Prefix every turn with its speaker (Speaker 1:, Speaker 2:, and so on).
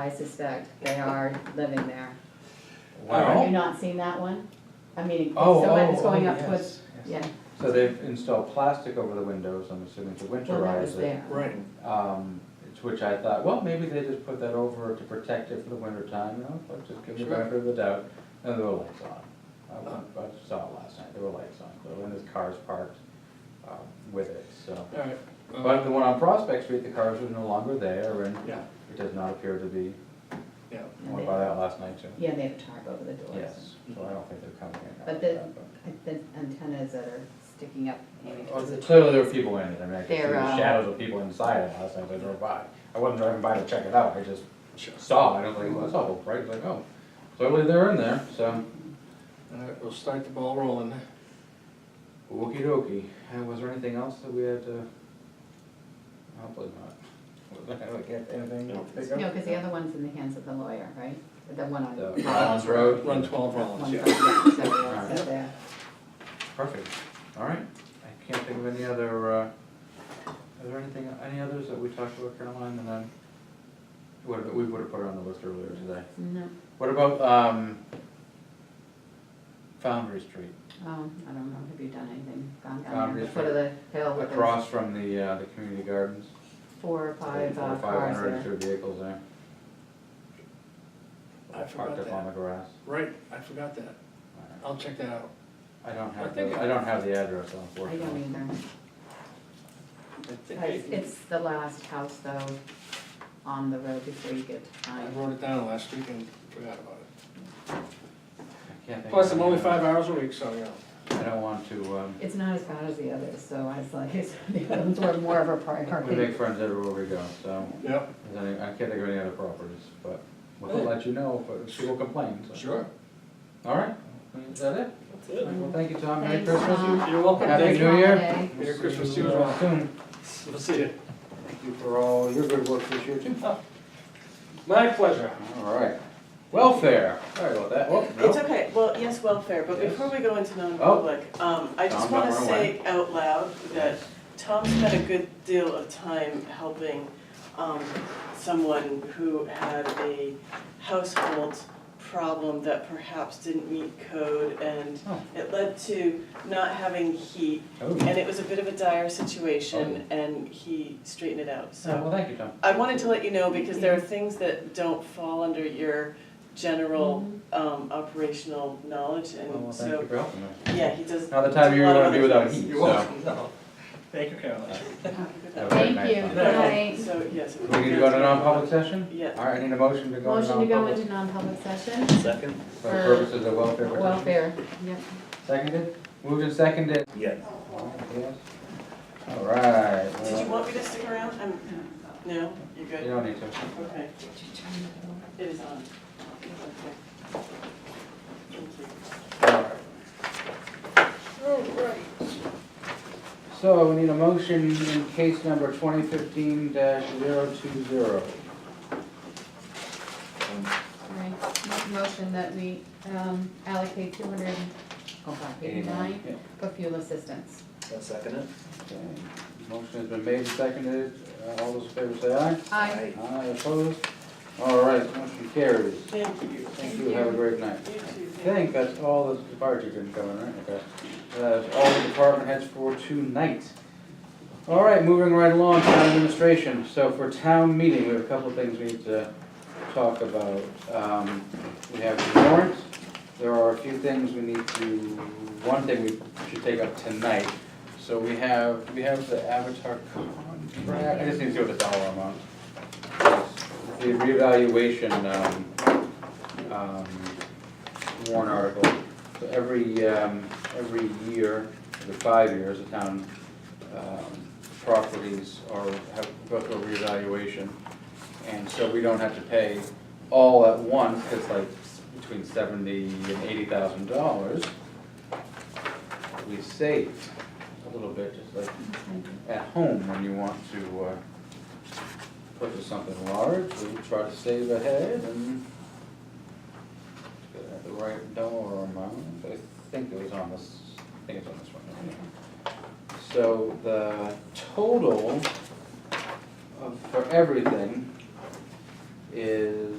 Speaker 1: I suspect they are living there. Have you
Speaker 2: Wow.
Speaker 1: not seen that one? I mean, it's the
Speaker 2: Oh,
Speaker 1: one that's
Speaker 2: oh,
Speaker 1: going
Speaker 2: oh,
Speaker 1: up towards,
Speaker 2: yes, yes.
Speaker 1: yeah,
Speaker 2: So they've installed plastic over the windows, I'm assuming to
Speaker 1: well, that was
Speaker 2: winterize it.
Speaker 1: there.
Speaker 3: Right.
Speaker 2: Um, it's which I thought, well, maybe they just put that over to protect it for the winter time, you know, but just give the
Speaker 3: Sure.
Speaker 2: benefit of the doubt. And there were lights on. I went- I saw it last night, there were lights on, so, and there's cars parked, um, with it, so.
Speaker 3: Alright.
Speaker 2: But the one on Prospect Street, the cars are no longer there and
Speaker 3: Yeah,
Speaker 2: it does not appear to be,
Speaker 3: yeah.
Speaker 2: I went by that last night too.
Speaker 1: Yeah, they have tarp over the doors.
Speaker 2: Yes, so I don't think they're coming in.
Speaker 1: But the- I- The antennas that are sticking up, maybe
Speaker 2: Well,
Speaker 1: towards the.
Speaker 2: Clearly there were people in it, I mean, I could see
Speaker 1: They're,
Speaker 2: the
Speaker 1: uh,
Speaker 2: shadows of people inside it last night as I drove by. I wasn't driving by to check it out, I just
Speaker 3: Sure.
Speaker 2: saw, it. I was like, well, that's awful bright, like, oh, clearly they're in there, so.
Speaker 3: Alright, we'll start the ball rolling.
Speaker 2: Okey dokey, Uh, was there anything else that we had to? Hopefully not. Was there like, anything to
Speaker 3: No.
Speaker 2: pick up?
Speaker 1: No, because the other one's in the hands of the lawyer, right? The one on.
Speaker 2: The Rollins Road?
Speaker 3: Run twelve Rollins,
Speaker 1: One
Speaker 3: Uh, yeah.
Speaker 1: from, so we all set there.
Speaker 2: Perfect, all right, I can't think of any other, uh, are there anything, any others that we talked about Caroline and then? Would have, we would have put it on the list earlier today.
Speaker 1: No,
Speaker 2: What about, um, Foundry Street,
Speaker 1: um, I don't know, have you done anything, gone down there,
Speaker 2: Boundaries
Speaker 1: the foot of the hill with those
Speaker 2: Um, across from the, uh, the community gardens?
Speaker 1: four or five
Speaker 2: Four
Speaker 1: uh,
Speaker 2: or Five
Speaker 1: cars
Speaker 2: hundred
Speaker 1: there?
Speaker 2: extra vehicles there.
Speaker 3: I forgot
Speaker 2: Parked up on the
Speaker 3: that.
Speaker 2: grass.
Speaker 3: Right, I forgot that.
Speaker 2: Alright.
Speaker 3: I'll check that out.
Speaker 2: I don't
Speaker 3: I
Speaker 2: have,
Speaker 3: think
Speaker 2: the-
Speaker 3: I-
Speaker 2: I don't have the address
Speaker 1: I
Speaker 2: unfortunately.
Speaker 1: don't
Speaker 3: I think
Speaker 1: either, it's,
Speaker 3: I,
Speaker 1: it's the last house though, on the road before you get to
Speaker 3: I
Speaker 1: time.
Speaker 3: wrote it down last week and forgot about it.
Speaker 2: I can't think of
Speaker 3: Plus, I'm
Speaker 2: any
Speaker 3: only
Speaker 2: others.
Speaker 3: five hours a week, so, you know.
Speaker 2: I don't want to, um,
Speaker 1: It's not as bad as the others, so I was like, it's- the others were more of a
Speaker 2: we make
Speaker 1: priority.
Speaker 2: friends everywhere we go, so.
Speaker 3: Yep.
Speaker 2: there's any- I can't think of any other properties, but we'll let you know, but people complain, so.
Speaker 3: Sure.
Speaker 2: Alright, is that it?
Speaker 3: That's it.
Speaker 2: Well, thank you, Tom, Merry
Speaker 1: Thanks,
Speaker 2: Christmas.
Speaker 1: Tom.
Speaker 3: You're welcome.
Speaker 2: Happy
Speaker 3: Thank you.
Speaker 2: New Year.
Speaker 1: Holiday.
Speaker 2: We'll
Speaker 3: Merry
Speaker 2: see
Speaker 3: Christmas
Speaker 2: you,
Speaker 3: to you as well.
Speaker 2: uh, Soon.
Speaker 3: We'll see you.
Speaker 4: Thank you for all your good work this year too.
Speaker 3: My pleasure.
Speaker 2: All right. Welfare. Sorry about that. Oh,
Speaker 5: It's
Speaker 2: no.
Speaker 5: okay, well, yes, welfare, but
Speaker 2: Yes. Oh.
Speaker 5: before we go into non-public, um, I just
Speaker 2: Tom, don't
Speaker 5: wanna
Speaker 2: run
Speaker 5: say out loud that Tom spent a good deal of time helping, um, someone who had a household problem that perhaps didn't meet code and
Speaker 2: Oh.
Speaker 5: it led to not having heat,
Speaker 2: Oh,
Speaker 5: and it was a bit of a dire situation, and he straightened it out, so.
Speaker 2: Well, thank you, Tom.
Speaker 5: I wanted to let you know because there are things that don't fall under your general um operational knowledge
Speaker 2: Oh, Well, well,
Speaker 5: and
Speaker 2: thank you
Speaker 5: so,
Speaker 2: for helping me.
Speaker 5: yeah, he does.
Speaker 2: Not the time you're
Speaker 5: a lot of
Speaker 2: gonna be
Speaker 5: other
Speaker 2: without
Speaker 5: things.
Speaker 2: heat,
Speaker 3: You're
Speaker 2: so.
Speaker 3: welcome. No. Thank you, Caroline.
Speaker 4: Uh,
Speaker 2: Have a great
Speaker 1: Thank
Speaker 2: night,
Speaker 1: you,
Speaker 2: Tom.
Speaker 1: good night.
Speaker 5: So, yes. it
Speaker 2: We
Speaker 5: would
Speaker 2: need
Speaker 5: be
Speaker 2: to
Speaker 5: good
Speaker 2: go to non-public session?
Speaker 5: Yeah.
Speaker 2: All right, I need a motion to go to
Speaker 1: Motion to go
Speaker 2: non-public
Speaker 1: into non-public session,
Speaker 4: Second?
Speaker 2: for the purposes of welfare. protection.
Speaker 1: welfare, yep.
Speaker 2: Seconded? Moved and seconded?
Speaker 4: Yes.
Speaker 2: All right, Yes. All right.
Speaker 5: Did you
Speaker 2: well,
Speaker 5: want me to stick around? I'm, no, you're
Speaker 2: You
Speaker 5: good,
Speaker 2: don't need to.
Speaker 5: okay. It is on. Okay. Thank you.
Speaker 2: All right. So we need a motion in case number twenty fifteen 20
Speaker 1: All right, make a motion that we um, allocate two hundred, oh god, eighty-nine
Speaker 2: Yeah.
Speaker 1: for fuel assistance.
Speaker 4: I'll second it.
Speaker 2: Okay. Motion has been made and seconded. Uh, All those in favor say aye.
Speaker 1: Aye.
Speaker 2: Aye opposed? All right, motion carries.
Speaker 5: Thank you,
Speaker 2: Thank you, have a great night.
Speaker 5: you too.
Speaker 2: I think that's all the departure didn't come in, right? Okay. That's all the department heads for tonight. All right, moving right along, town administration. So for town meeting, we have a couple of things we need to talk about. Um, We have the warrant. There are a few things we need to, one thing we should take up tonight. So we have, we have the Avatar contract. I just need to see what the dollar amount. is. The reevaluation, um, um, warrant article. So every, um, every year, the five years, the town, um, properties are, have, go through a reevaluation. And so we don't have to pay all at once, it's like between seventy and eighty thousand dollars. We save a little bit, just like at home when you want to, uh, purchase something large, we try to save ahead and Got The right dollar amount, I think it was on this, I think it's on this one. isn't it? So the total of, for everything is